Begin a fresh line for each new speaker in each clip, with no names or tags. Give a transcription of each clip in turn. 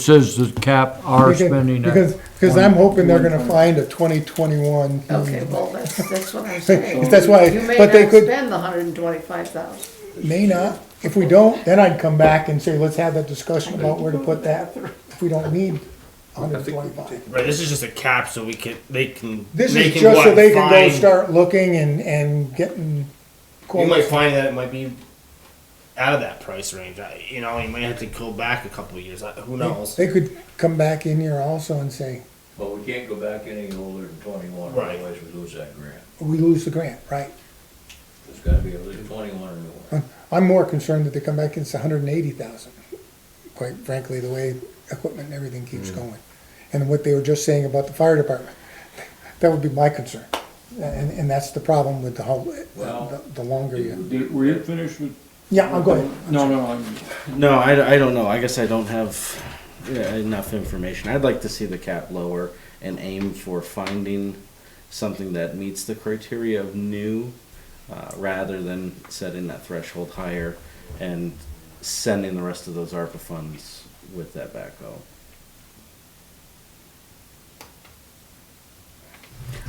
says the cap our
Because-
spending
Because,
at.
because I'm hoping they're gonna find a twenty twenty-one.
Okay, well, that's, that's what I'm saying.
That's why-
You may
Mm. but they
not
could-
spend the hundred and twenty-five thousand.
May not. If we don't, then I'd come back and say, let's have that discussion about where to put that, if we don't need hundred twenty-five.
Right, this is just a cap, so we can they can.
This
they
is
can
just so
what,
they can go
find-
start looking and, and getting
You might
quotes.
find that it might be out of that price range. I, you know, you might have to go back a couple of years. I, who knows?
They could come back in here also and say,
But we can't go back any older than twenty-one,
Right.
otherwise we lose that grant.
we lose the grant, right?
It's gotta be at least twenty-one or newer.
I'm more concerned that they come back and it's hundred and eighty thousand, quite frankly, the way equipment and everything keeps going. And what they were just saying about the fire department, that would be my concern. And, and that's the problem with the whole, the,
Well-
the longer you,
Did- Were you finished with?
yeah, I'll go ahead.
No, no, I'm,
No, I, I don't know. I guess I don't have yeah, enough information. I'd like to see the cap lower and aim for finding something that meets the criteria of new uh, rather than setting that threshold higher and sending the rest of those ARPA funds with that backhoe.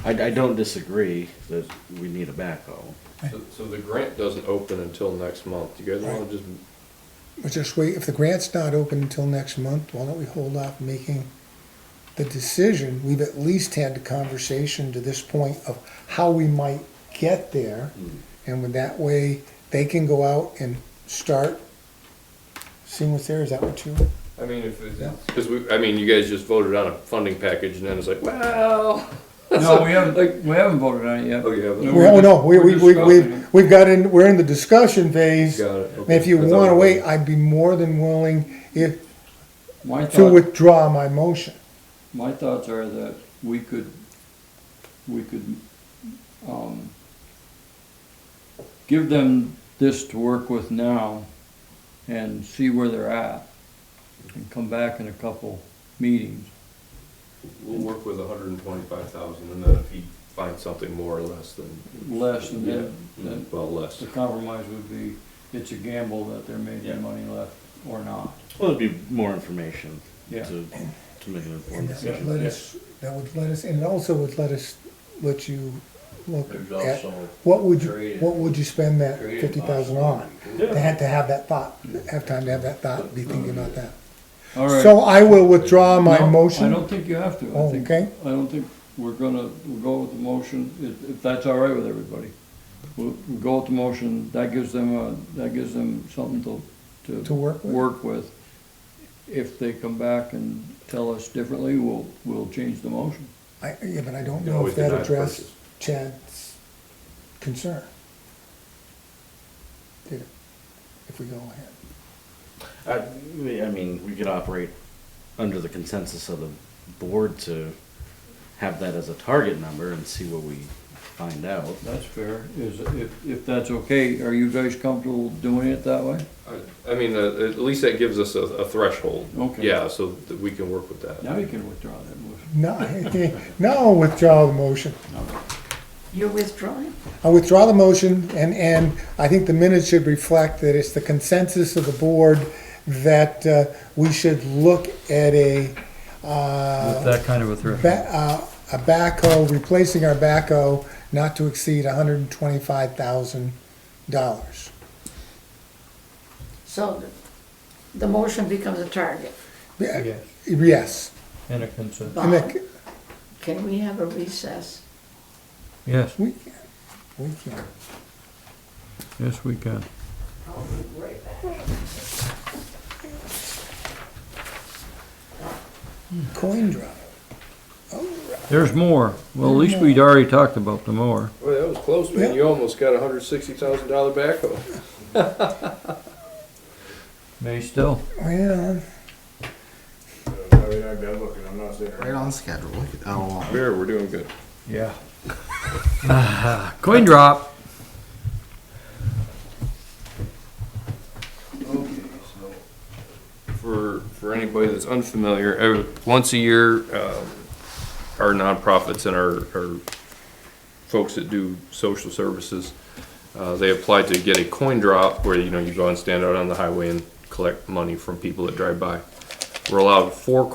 I, I don't disagree that we need a backhoe.
So- So the grant doesn't open until next month. You guys wanna just,
But just wait, if the grant's not open until next month, why don't we hold off making the decision? We've at least had the conversation to this point of how we might get there.
Mm.
And with that way, they can go out and start seeing what's there. Is that what you?
I mean, if,
Yeah.
cause we, I mean, you guys just voted on a funding package and then it's like, well.
no, we haven't,
Like-
we haven't voted on it yet.
Oh, you haven't?
No, we're
Well, no,
just-
we,
we're
we, we,
discussing it.
we've, we've got in, we're in the discussion phase.
Got it,
And
okay.
if you
I thought
wanna
we-
wait, I'd be more than willing if,
My
to
thought,
withdraw my motion.
my thoughts are that we could, we could, um, give them this to work with now and see where they're at and come back in a couple meetings.
We'll work with a hundred and twenty-five thousand and then if he finds something more or less than,
Less and
yeah,
then, then
well, less.
the compromise would be, it's a gamble that there may be
Yeah.
money left or not.
Well, it'd be more information
Yeah.
to, to make an
And uh, that would
informed decision.
let us, that would let us, and it also would let us, let you look
There's
at,
also
what would you,
Creative-
what would you spend that
creative
fifty thousand on?
possibilities.
They had to have that thought, have time to have that thought, be thinking about that.
All right.
So I will withdraw my
No, I
motion.
don't think you have to. I
Oh,
think-
okay.
I don't think we're gonna, we'll go with the motion, if, if that's all right with everybody. We'll, we'll go with the motion, that gives them a, that gives them something to, to.
To work with.
Work with. If they come back and tell us differently, we'll, we'll change the motion.
I, yeah, but I don't
can
know
always
if that
deny the
addressed
purchase.
Chad's concern. Did it, if we go ahead.
I, I mean, we could operate under the consensus of the board to have that as a target number and see what we find out.
That's fair, is, if, if that's okay, are you guys comfortable doing it that way?
I- I mean, uh, at least that gives us a, a threshold.
Okay.
Yeah, so that we can work with that.
Now you can withdraw that motion.
No, no, withdraw the motion.
You're withdrawing?
I withdraw the motion, and, and I think the minutes should reflect that it's the consensus of the board that uh, we should look at a, uh,
That kind of a threshold.
ba- uh, a backhoe, replacing our backhoe not to exceed hundred and twenty-five thousand dollars.
So the- the motion becomes a target.
Yes.
Yes,
And a consent.
and
Bob,
that,
can we have a recess?
Yes,
we, we can,
yes, we can.
I'll be right back.
coin drop.
There's more. Well, at least we'd already talked about the more.
Well, that was close,
Yeah.
man. You almost got a hundred sixty thousand dollar backhoe.
May still.
Well,
Right on schedule. Look at- Oh, wow.
Mayor, we're doing good.
Yeah. Coin drop.
for, for anybody that's unfamiliar, uh, once a year, um, our nonprofits and our, our folks that do social services, uh, they apply to get a coin drop where, you know, you go and stand out on the highway and collect money from people that drive by. We're allowed four